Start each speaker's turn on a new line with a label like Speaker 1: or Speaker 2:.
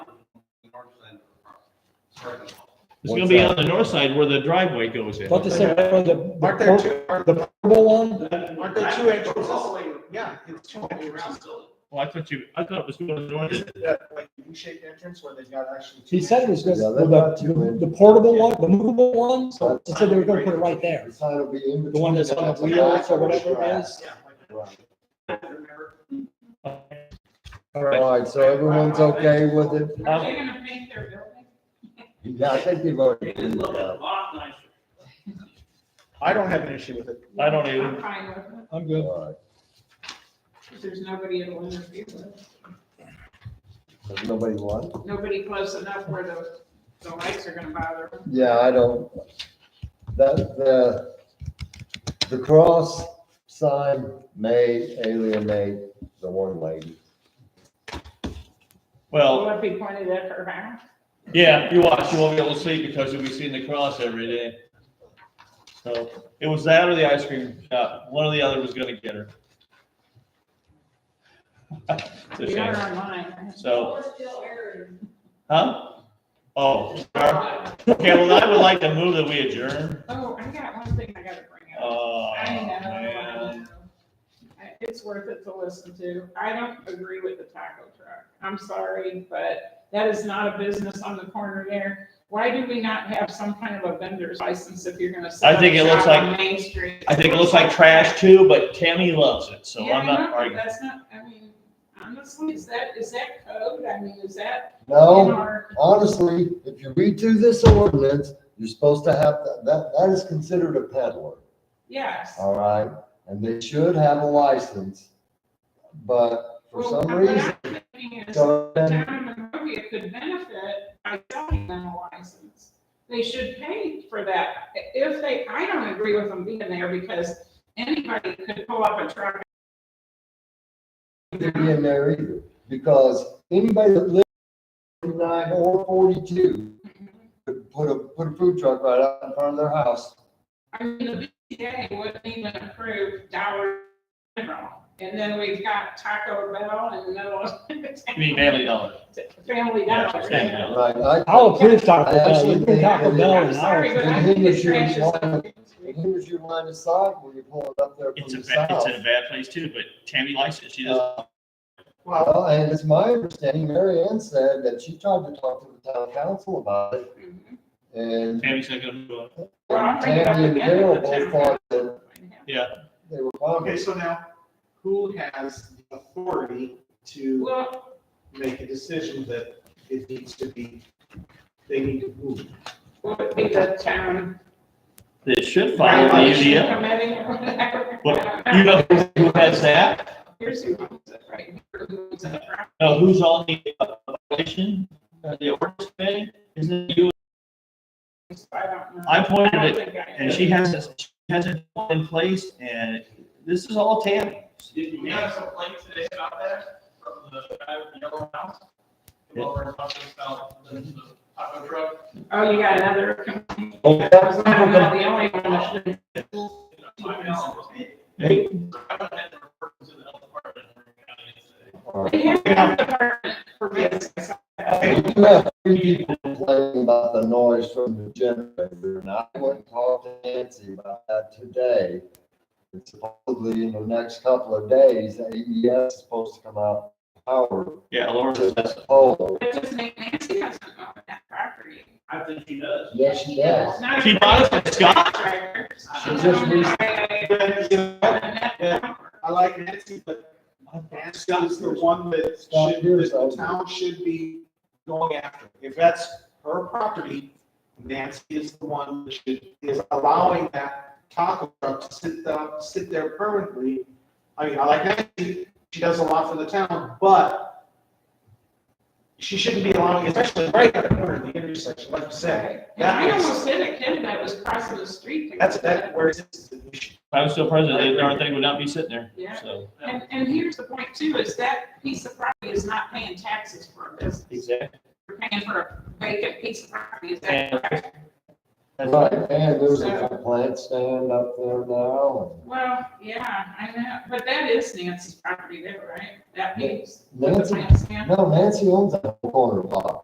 Speaker 1: north end of the property. Starting off.
Speaker 2: It's gonna be on the north side where the driveway goes in.
Speaker 3: What to say, the,
Speaker 4: Aren't there two,
Speaker 3: the,
Speaker 4: aren't
Speaker 3: the purple one?
Speaker 4: aren't there two entrances? Yeah, it's two
Speaker 1: All around
Speaker 4: entrances.
Speaker 1: still.
Speaker 2: Well, Oh, I thought you, I thought it was going north.
Speaker 4: Isn't that like U-shaped entrance where they've got actually? two
Speaker 3: He said it was gonna,
Speaker 5: Yeah,
Speaker 3: well,
Speaker 5: that's-
Speaker 3: the, the portable one, the movable one, so he said they were gonna put it right there.
Speaker 5: The sign will be in between.
Speaker 3: The one that's on
Speaker 5: like
Speaker 3: the wheels or whatever it
Speaker 5: drive.
Speaker 3: is.
Speaker 4: entrances?
Speaker 5: Right.
Speaker 4: Yeah. I remember.
Speaker 5: All right, so everyone's okay with it?
Speaker 2: Um,
Speaker 6: They're gonna paint their building?
Speaker 5: Yeah, I think
Speaker 1: It
Speaker 5: you've already.
Speaker 1: is a
Speaker 5: figured
Speaker 1: little
Speaker 5: it
Speaker 1: bit
Speaker 5: out.
Speaker 1: lot nicer.
Speaker 4: I don't have an issue with it.
Speaker 2: I don't even-
Speaker 6: I'm fine with it,
Speaker 3: I'm good.
Speaker 5: All right.
Speaker 6: if there's nobody it'll interfere with.
Speaker 5: Does nobody want?
Speaker 6: Nobody close enough where the, the lights are gonna bother them.
Speaker 5: Yeah, I don't, that, the, the cross sign may alienate the one lady.
Speaker 2: Well,
Speaker 6: Will it be pointed at her house?
Speaker 2: yeah, you watch, you won't be able to see because you'll be seeing the cross every day. So it was that or the ice cream shop. One or the other was gonna get her. It's a
Speaker 6: We
Speaker 2: shame.
Speaker 6: are online.
Speaker 2: So, huh? Oh, sorry. okay, well, I would like to move that we adjourn.
Speaker 6: Oh, I got one thing I gotta bring up.
Speaker 2: Oh,
Speaker 6: I know.
Speaker 2: man.
Speaker 6: I- It's worth it to listen to. I don't agree with the taco truck. I'm sorry, but that is not a business on the corner there. Why do we not have some kind of a vendor's license if you're gonna set
Speaker 2: I think it
Speaker 6: up
Speaker 2: looks
Speaker 6: shop on Main Street?
Speaker 2: I think it looks like trash too, but Tammy loves it, so
Speaker 6: Yeah,
Speaker 2: I'm not
Speaker 6: no,
Speaker 2: arguing.
Speaker 6: That's not, I mean, honestly, is that, is that code? I mean, is that in
Speaker 5: No,
Speaker 6: our?
Speaker 5: honestly, if you read through this ordinance, you're supposed to have, that, that, that is considered a peddler.
Speaker 6: Yes.
Speaker 5: All right, and they should have a license, but for
Speaker 6: Well,
Speaker 5: some
Speaker 6: what I'm
Speaker 5: reason,
Speaker 6: thinking is
Speaker 5: so then-
Speaker 6: Town of Monrovia could benefit by selling them a license. They should pay for that. If they, I don't agree with them being there because anybody could pull up a truck.
Speaker 5: to be in there either, because anybody that lives in nine or forty-two could put a, put a food truck right out in front of their house.
Speaker 6: I mean, the BCA wouldn't even approve Dollar General. And then we've got Taco Bell in the middle of
Speaker 2: You mean Family Dollar?
Speaker 6: Family
Speaker 2: Yeah,
Speaker 6: Dollar.
Speaker 2: Family Dollar.
Speaker 5: Right, I,
Speaker 3: I'll approve Taco Bell,
Speaker 5: Actually,
Speaker 3: you can Taco Bell
Speaker 6: I'm
Speaker 3: and I.
Speaker 6: sorry, but
Speaker 5: And
Speaker 6: I
Speaker 5: then
Speaker 6: think it's
Speaker 5: you're
Speaker 6: trash. is
Speaker 5: one-
Speaker 6: something-
Speaker 5: and here's your line of sight when you pull it up there
Speaker 2: It's
Speaker 5: from
Speaker 2: a,
Speaker 5: the
Speaker 2: ba- it's in a
Speaker 5: south.
Speaker 2: bad place too, but Tammy likes it. She does.
Speaker 5: Uh, Well, Uh, and it's my understanding, Mary Ann said that she tried to talk to the town council about it,
Speaker 6: Mhm.
Speaker 5: and
Speaker 2: Tammy's not gonna do it.
Speaker 6: Well, I'll bring it up
Speaker 5: Tammy and
Speaker 6: again to the
Speaker 5: Daryl both
Speaker 6: town
Speaker 5: thought that
Speaker 2: Yeah.
Speaker 5: they were fine with
Speaker 4: Okay,
Speaker 5: it.
Speaker 4: so now, who has the authority to
Speaker 6: Well,
Speaker 4: make a decision that it needs to be, they need to move?
Speaker 6: would be the town.
Speaker 2: It should follow the
Speaker 6: regulation
Speaker 2: UDO.
Speaker 6: committee or whatever.
Speaker 2: But you know who has that?
Speaker 6: Here's who owns it, right? Here who owns it, right?
Speaker 2: No, who's on the uh, violation? Uh, The ordinance committee? Isn't it you?
Speaker 6: So I don't know.
Speaker 2: I pointed
Speaker 6: I
Speaker 2: it
Speaker 6: don't think I-
Speaker 2: and she has, it- she has it in place and this is all Tammy.
Speaker 1: Did you have some complaints today about that from the guy with the yellow house? The one we're talking about, the the taco truck?
Speaker 6: Oh, you got another.
Speaker 5: Oh, that was-
Speaker 6: I'm not the only one that should-
Speaker 1: You know, my mail was made.
Speaker 2: Hey,
Speaker 1: I went ahead and reported to the health department. and we're gonna get it today.
Speaker 5: All right.
Speaker 6: They have a department for business.
Speaker 5: We do have three people complaining about the noise from the generator, and I went and talked to Nancy about that today. And supposedly in the next couple of days, AES is supposed to come out with power
Speaker 2: Yeah, Laura
Speaker 5: to
Speaker 2: says
Speaker 5: this
Speaker 2: that's.
Speaker 5: pole.
Speaker 6: It just makes Nancy doesn't own that property.
Speaker 1: I think he does.
Speaker 5: Yes, she does.
Speaker 6: It's not-
Speaker 2: She bought it from Scott.
Speaker 5: She just needs-
Speaker 4: I like Nancy, but Nancy is the one that
Speaker 5: Scott
Speaker 4: should,
Speaker 5: Pierce,
Speaker 4: that the
Speaker 5: I-
Speaker 4: town should be going after. If that's her property, Nancy is the one that should, is allowing that taco truck to sit, down- sit there permanently. I mean, I like Nancy, she does a lot for the town, but she shouldn't be allowing, especially right at the corner of the intersection, like you said.
Speaker 6: And I almost hit a kid that was crossing the street. to
Speaker 4: That's,
Speaker 6: go to that
Speaker 4: that's where it's, we should
Speaker 2: If I was still president, that darn thing would not be sitting there.
Speaker 6: Yeah.
Speaker 2: So.
Speaker 6: And, and here's the point too, is that piece of property is not paying taxes for a business.
Speaker 2: Exactly.
Speaker 6: You're paying for a vacant piece of property. Is that
Speaker 2: And-
Speaker 6: correct?
Speaker 2: That's
Speaker 5: Right, and there's a complaint stand up there now.
Speaker 6: Well, yeah, I know, but that is Nancy's property there, right? That piece.
Speaker 5: Nancy,
Speaker 6: Plant stand.
Speaker 5: no, Nancy owns that corner block.